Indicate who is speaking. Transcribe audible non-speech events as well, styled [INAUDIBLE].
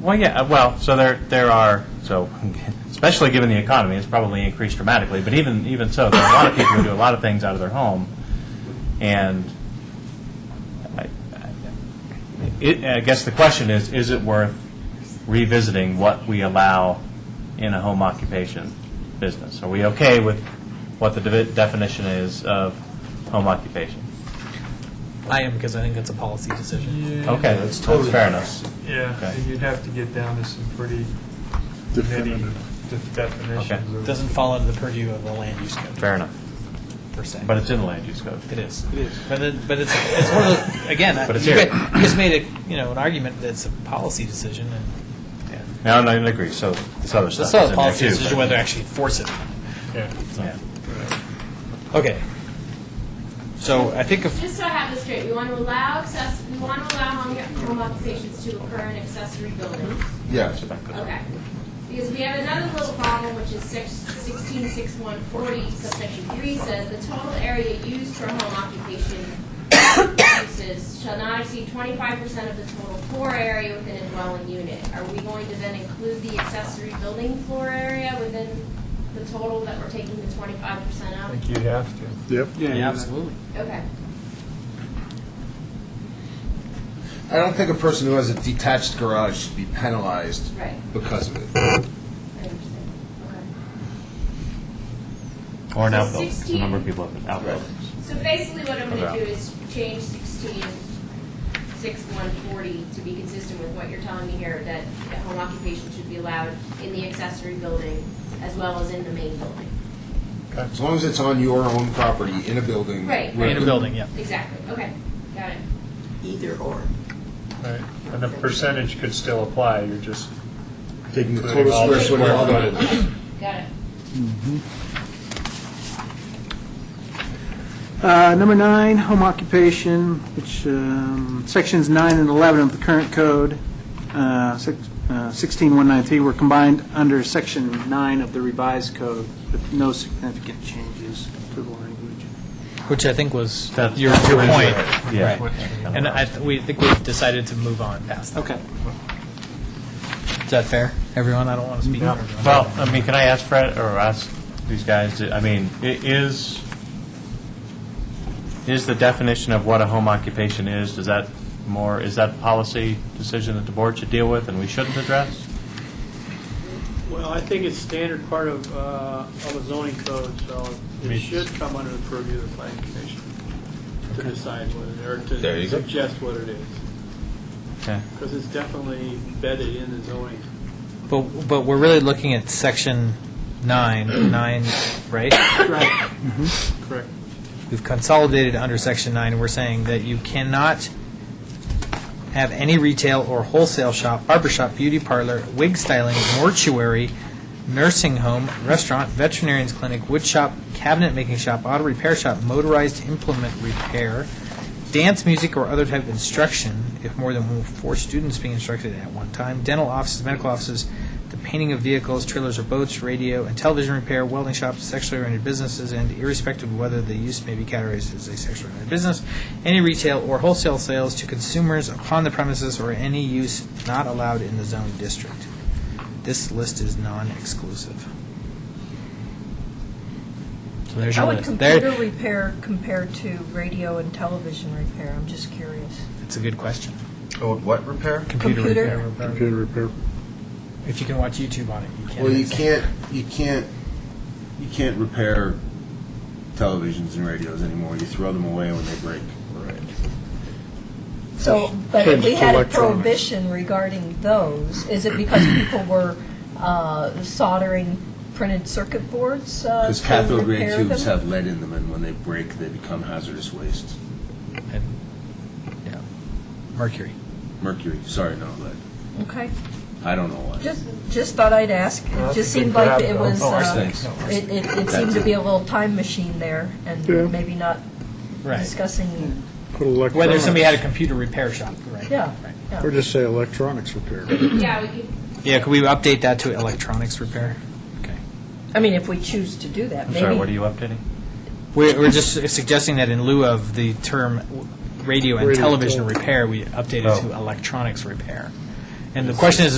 Speaker 1: Well, yeah, uh, well, so there, there are, so, [LAUGHS] especially given the economy, it's probably increased dramatically, but even, even so, there are a lot of people who do a lot of things out of their home, and I, I- it, I guess the question is, is it worth revisiting what we allow in a home occupation business? Are we okay with what the devi- definition is of home occupation?
Speaker 2: I am because I think that's a policy decision.
Speaker 1: Okay, that's fair enough.
Speaker 3: Yeah,
Speaker 1: Okay.
Speaker 3: and you'd have to get down to some pretty nitty def- definitions.
Speaker 1: Okay.
Speaker 2: It
Speaker 3: of-
Speaker 2: doesn't fall under the purview of the land use code.
Speaker 1: Fair enough.
Speaker 2: Per se.
Speaker 1: But it's in the land use code.
Speaker 2: It is. It is. But, it, but it's, it's one of the, again,
Speaker 1: But it's
Speaker 2: you,
Speaker 1: here.
Speaker 2: guys, you guys made a, you know, an argument that it's a policy decision, and
Speaker 1: Yeah. No, I don't agree. So this other stuff
Speaker 2: it's
Speaker 1: is
Speaker 2: not
Speaker 1: in
Speaker 2: a
Speaker 1: there
Speaker 2: policy
Speaker 1: too.
Speaker 2: decision
Speaker 1: but-
Speaker 2: whether to actually force it.
Speaker 3: Yeah.
Speaker 1: Yeah.
Speaker 2: Okay. So I think if,
Speaker 4: Just so I have this straight, we want to allow access, we want to allow home, home occupations to occur in accessory buildings.
Speaker 5: Yes.
Speaker 4: Okay. Because we have another little problem, which is six, sixteen, six, one, forty, subsection three says, the total area used for home occupation uses shall not exceed twenty-five percent of the total floor area within a dwelling unit. Are we going to then include the accessory building floor area within the total that we're taking the twenty-five percent
Speaker 3: I
Speaker 4: out?
Speaker 3: think you'd have to.
Speaker 5: Yep.
Speaker 2: yeah, absolutely.
Speaker 4: Okay.
Speaker 5: I don't think a person who has a detached garage should be penalized
Speaker 4: Right.
Speaker 5: because of it.
Speaker 4: I understand. Okay.
Speaker 1: Or an
Speaker 4: So
Speaker 1: outbuilding. 'cause A number of
Speaker 4: 16.
Speaker 1: people have outbuildings.
Speaker 4: So basically what I'm gonna
Speaker 1: Okay.
Speaker 4: do is change sixteen, six, one, forty to be consistent with what you're telling me here, that a home occupation should be allowed in the accessory building as well as in the main building.
Speaker 5: As long as it's on your own property, in a building.
Speaker 4: Right.
Speaker 5: where-
Speaker 2: In a building, yeah.
Speaker 4: Exactly, okay, got it.
Speaker 6: Either or.
Speaker 3: Right. And the percentage could still apply, you're just,
Speaker 5: Taking the
Speaker 3: Including
Speaker 5: total
Speaker 3: all
Speaker 5: square
Speaker 3: the
Speaker 5: foot of all
Speaker 3: square
Speaker 5: the.
Speaker 4: Got it.
Speaker 7: Uh, Number nine, home occupation, which, um, sections nine and 11 of the current code, uh, six- uh, 16193, were combined under section nine of the revised code with no significant changes to the language.
Speaker 2: Which I think was
Speaker 1: That-
Speaker 2: your, your point.
Speaker 1: Yeah.
Speaker 2: Right. And I, th- we think we've decided to move on past that.
Speaker 7: Okay.
Speaker 2: Is that fair, everyone? I don't want to speak for everyone.
Speaker 1: Mm-hmm. Well, I mean, can I ask Fred or ask these guys? I mean, i- is is the definition of what a home occupation is? Does that more is that a policy decision that the board should deal with and we shouldn't address?
Speaker 8: Well, I think it's standard part of, uh, of a zoning code, so it should come under the purview of the planning commission to decide what it, or
Speaker 5: There you
Speaker 8: to
Speaker 5: go.
Speaker 8: suggest what it is,
Speaker 1: Okay.
Speaker 8: because it's definitely embedded in the zoning.
Speaker 2: But, but we're really looking at section nine, nine, right?
Speaker 8: Right. Correct.
Speaker 2: We've consolidated under section nine, we're saying that you cannot have any retail or wholesale shop, barber shop, beauty parlor, wig styling, mortuary, nursing home, restaurant, veterinarian's clinic, wood shop, cabinet making shop, auto repair shop, motorized implement repair, dance, music, or other type of instruction, if more than four students being instructed at one time, dental offices, medical offices, the painting of vehicles, trailers or boats, radio and television repair, welding shops, sexually oriented businesses, and irrespective of whether the use may be categorized as a sexually oriented business, any retail or wholesale sales to consumers upon the premises or any use not allowed in the zone district. This list is non-exclusive. So there's
Speaker 6: How
Speaker 2: your
Speaker 6: would
Speaker 2: list. There-
Speaker 6: computer repair compare to radio and television repair? I'm just curious.
Speaker 2: It's a good question.
Speaker 5: Oh, what repair?
Speaker 2: Computer
Speaker 6: Computer?
Speaker 2: repair. If you can watch YouTube on it, you can.
Speaker 5: Well, you can't, you can't, you can't repair televisions and radios anymore. You throw them away when they break.
Speaker 6: So, but if
Speaker 5: Change
Speaker 6: we
Speaker 5: to
Speaker 6: had a
Speaker 5: electronics.
Speaker 6: prohibition regarding those, is it because people were uh, soldering printed circuit boards uh,
Speaker 5: Because
Speaker 6: to
Speaker 5: cathode ray
Speaker 6: repair
Speaker 5: tubes
Speaker 6: them?
Speaker 5: have lead in them, and when they break, they become hazardous waste.
Speaker 2: And, yeah, Mercury.
Speaker 5: Mercury, sorry, not lead.
Speaker 6: Okay,
Speaker 5: I don't know why.
Speaker 6: just, just thought I'd ask.
Speaker 3: Well,
Speaker 6: It
Speaker 3: that's
Speaker 6: just
Speaker 3: a big
Speaker 6: seemed like
Speaker 3: grab,
Speaker 6: it
Speaker 3: though.
Speaker 6: was,
Speaker 5: Oh,
Speaker 6: uh,
Speaker 5: arsenic.
Speaker 6: it it- it
Speaker 5: That's
Speaker 6: seemed to
Speaker 5: it.
Speaker 6: be a little time machine there, and maybe not discussing,
Speaker 2: Whether somebody had a computer repair shop, right?
Speaker 6: yeah. yeah.
Speaker 9: Or just say electronics repair.
Speaker 4: Yeah, we could,
Speaker 2: Yeah, could we update that to electronics repair? Okay.
Speaker 6: I mean, if we choose to do that,
Speaker 1: I'm
Speaker 6: maybe.
Speaker 1: sorry. What are you updating?
Speaker 2: We're, we're just suggesting that in lieu of the term w- radio and television repair, we update it to electronics repair. And the question is,